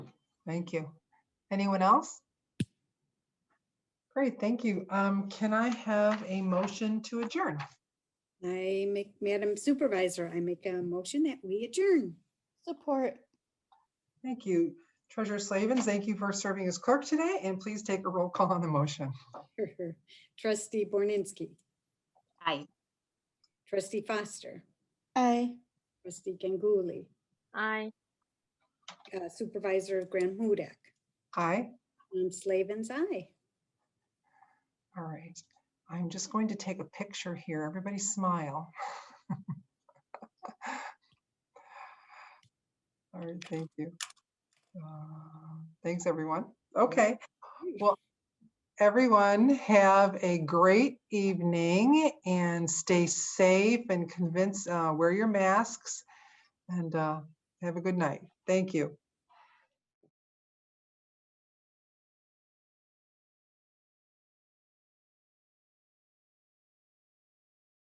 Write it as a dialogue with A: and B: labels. A: Thank you. Anyone else? Great, thank you. Um, Can I have a motion to adjourn?
B: I make, Madam Supervisor, I make a motion that we adjourn.
C: Support.
A: Thank you. Treasurer Slavens, thank you for serving as clerk today, and please take a roll call on the motion.
B: Trustee Borninski,
D: Aye.
B: trustee Foster,
C: Aye.
B: trustee Ganguly,
D: Aye.
B: uh, Supervisor Graham Hudak,
A: Aye.
B: and Slavens, aye.
A: All right, I'm just going to take a picture here. Everybody smile. All right, thank you. Uh, Thanks, everyone. Okay, well, everyone have a great evening and stay safe and convince, uh, wear your masks and uh, have a good night. Thank you.